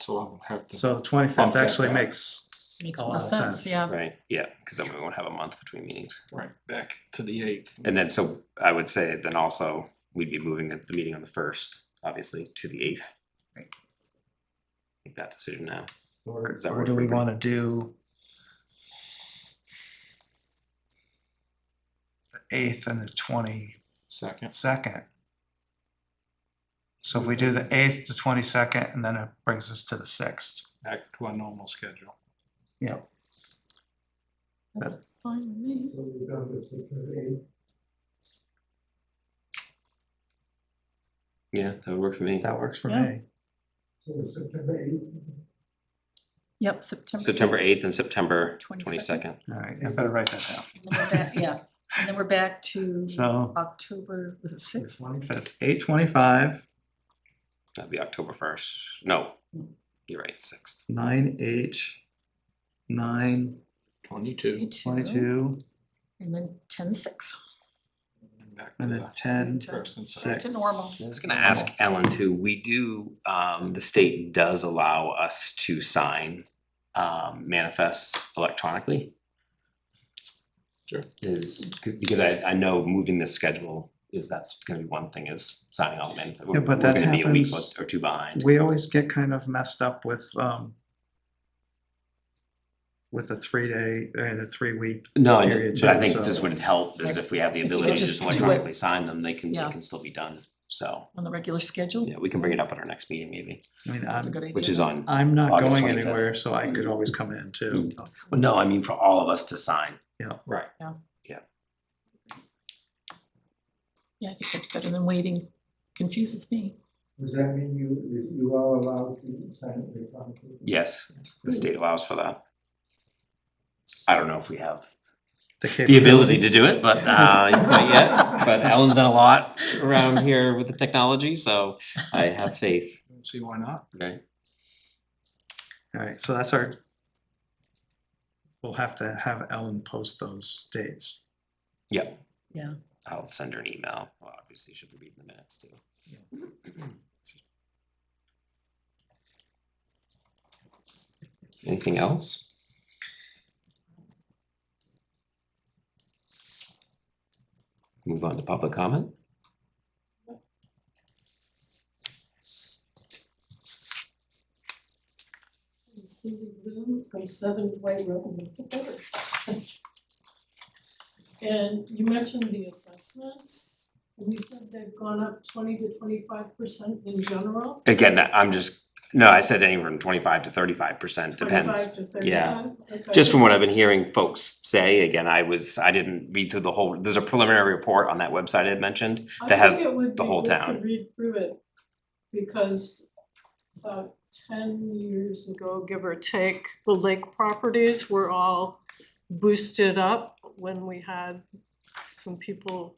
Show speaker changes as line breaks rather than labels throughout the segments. so I'll have to.
So the twenty-fifth
Bump that
actually
back.
makes
Makes
a
more
lot of
sense,
sense.
yeah.
Right, yeah, because then we won't have a month between meetings.
Right, back to the eighth.
And then, so I would say then also, we'd be moving it- the meeting on the first, obviously, to the eighth.
Right.
Make that decision now.
Or,
Does that
or
work
do
for
we
everybody?
wanna do the eighth and the twenty-second?
Second,
So if we do the eighth to twenty-second, and then it brings us to the sixth.
back to our normal schedule.
Yeah,
That's fine with me.
Yeah, that would work for me.
that works for
Yeah.
me.
Yep, September.
September eighth and September
22nd.
twenty-second.
Alright, I better write that down.
And then we're back- Yeah, and then we're back to
So,
October, was it sixth?
twenty-fifth, eight twenty-five,
That'd be October first. No, you're right, sixth.
nine H, nine
Twenty-two,
twenty-two,
And then ten six.
and back to
and then
the,
ten
first and
six.
to normal.
I was gonna ask Ellen too, we do, um, the state does allow us to sign um manifests electronically.
Sure.
Is, cause because I I know moving this schedule is that's gonna be one thing is signing all the manifests. We're
Yeah, but
we're
that
gonna be a week
happens-
or two behind.
We always get kind of messed up with, um, with the three day, uh, the three week,
No, I-
period
but I
too,
think
so-
this would help is if we have the ability to
just
just
do it.
electronically sign them, they can, they
Yeah.
can still be done, so.
On the regular schedule?
Yeah, we can bring it up at our next meeting maybe,
I mean,
That's a
I'm,
good idea.
which is on,
I'm not
August Mm.
going
25th.
anywhere, so I could always come in too.
well, no, I mean for all of us to sign.
right,
Yeah, I think that's better than waiting. Confuses me.
Does that mean you, is- you are allowed to sign it electronically?
Yes, the state allows for that. I don't know if we have the
capability.
ability to do it, but uh quite yet, but Ellen's done a lot around here with the technology, so I have faith,
see why not?
right?
Alright, so that's our, we'll have to have Ellen post those dates.
Yeah.
Yeah.
I'll send her an email, well, obviously she'll be reading the minutes too. Anything else? Move on to public comment?
And Cindy Bloom from Seven Way Road in Tupper. And you mentioned the assessments, and you said they've gone up twenty to twenty-five percent in general.
Again, that- I'm just, no, I said anywhere from twenty-five to thirty-five percent, depends.
Twenty-five to
yeah.
thirty-five, okay.
Just from what I've been hearing folks say, again, I was, I didn't read through the whole, there's a preliminary report on that website I had mentioned. that has the whole
I think
town.
it would be good to read through it, because about ten years ago, give or take, the lake properties were all boosted up when we had some people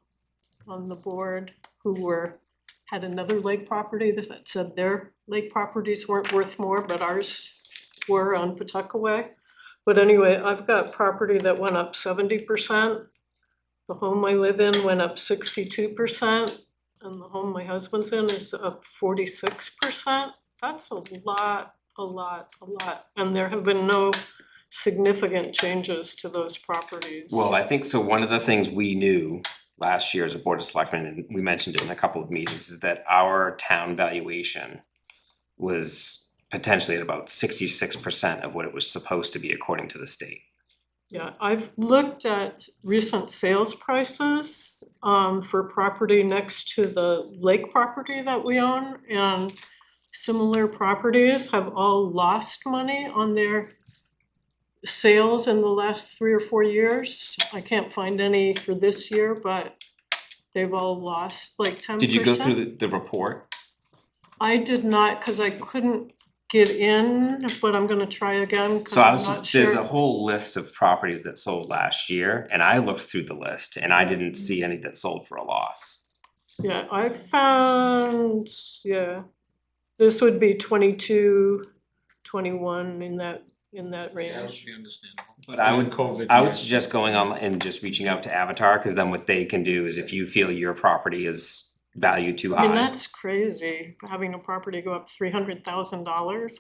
on the board who were, had another lake property that said their lake properties weren't worth more, but ours were on Pawtuckaway. But anyway, I've got property that went up seventy percent. The home I live in went up sixty-two percent, and the home my husband's in is up forty-six percent. That's a lot, a lot, a lot, and there have been no significant changes to those properties.
Well, I think so one of the things we knew last year as a board of selectmen, and we mentioned it in a couple of meetings, is that our town valuation was potentially at about sixty-six percent of what it was supposed to be according to the state.
Yeah, I've looked at recent sales prices um for property next to the lake property that we own and similar properties have all lost money on their sales in the last three or four years. I can't find any for this year, but they've all lost like ten percent.
Did you go through the, the report?
I did not, cause I couldn't get in, but I'm gonna try again, cause
So I
I'm not
was,
sure.
there's a whole list of properties that sold last year, and I looked through the list, and I
Mm-hmm.
didn't see any that sold for a loss.
Yeah, I found, yeah, this would be 22, 21 in that, in that
That
range.
would be understandable.
But I would
And COVID
I would
years.
suggest going on and just reaching out to Avatar, cause then what they can do is if you feel your property is valued too
I mean,
high.
that's crazy, having a property go up three hundred thousand dollars